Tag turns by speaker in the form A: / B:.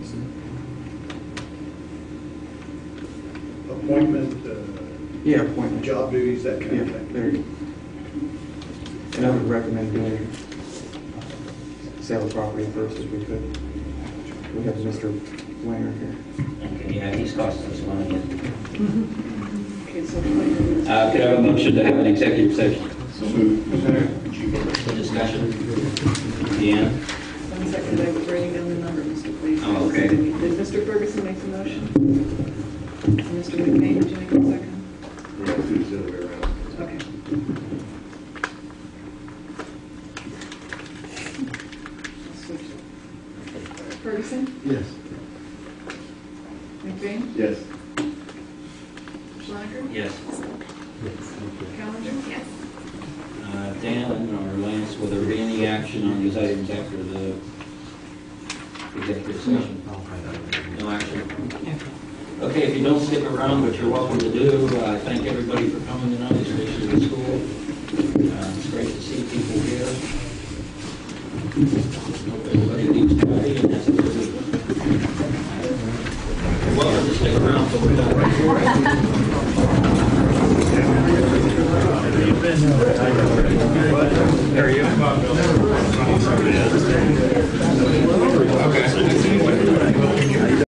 A: appointment, uh,
B: Yeah, appointment.
A: job duties, that kind
B: Yeah,
A: of thing.
B: there you go. And I would recommend doing sale of property first if we could. We have Mr. Wanger here.
C: Okay, yeah, he's costing us money.
D: Okay, so twenty-one.
C: Uh, could I have a motion to have an executive session? For discussion? Deanna?
D: One second, I was writing down the number, Mr. Clayton.
C: Oh, okay.
D: Did Mr. Ferguson make the motion? And Mr. McBain, did you make the second?
A: Yeah, it's the other way around.
D: Okay. Switch. Ferguson,
B: Yes.
D: McBain,
A: Yes.
D: Schlenker,
C: Yes.
D: Callender? Yes.
C: Uh, Dan or Lance, will there be any action on these items after the executive session? No action? Okay, if you don't stick around, which you're welcome to do, uh, thank everybody for coming tonight, especially the school. Uh, It's great to see people here. Hope everybody leaves happy, and that's a good one. You're Welcome to stick around, but we're done.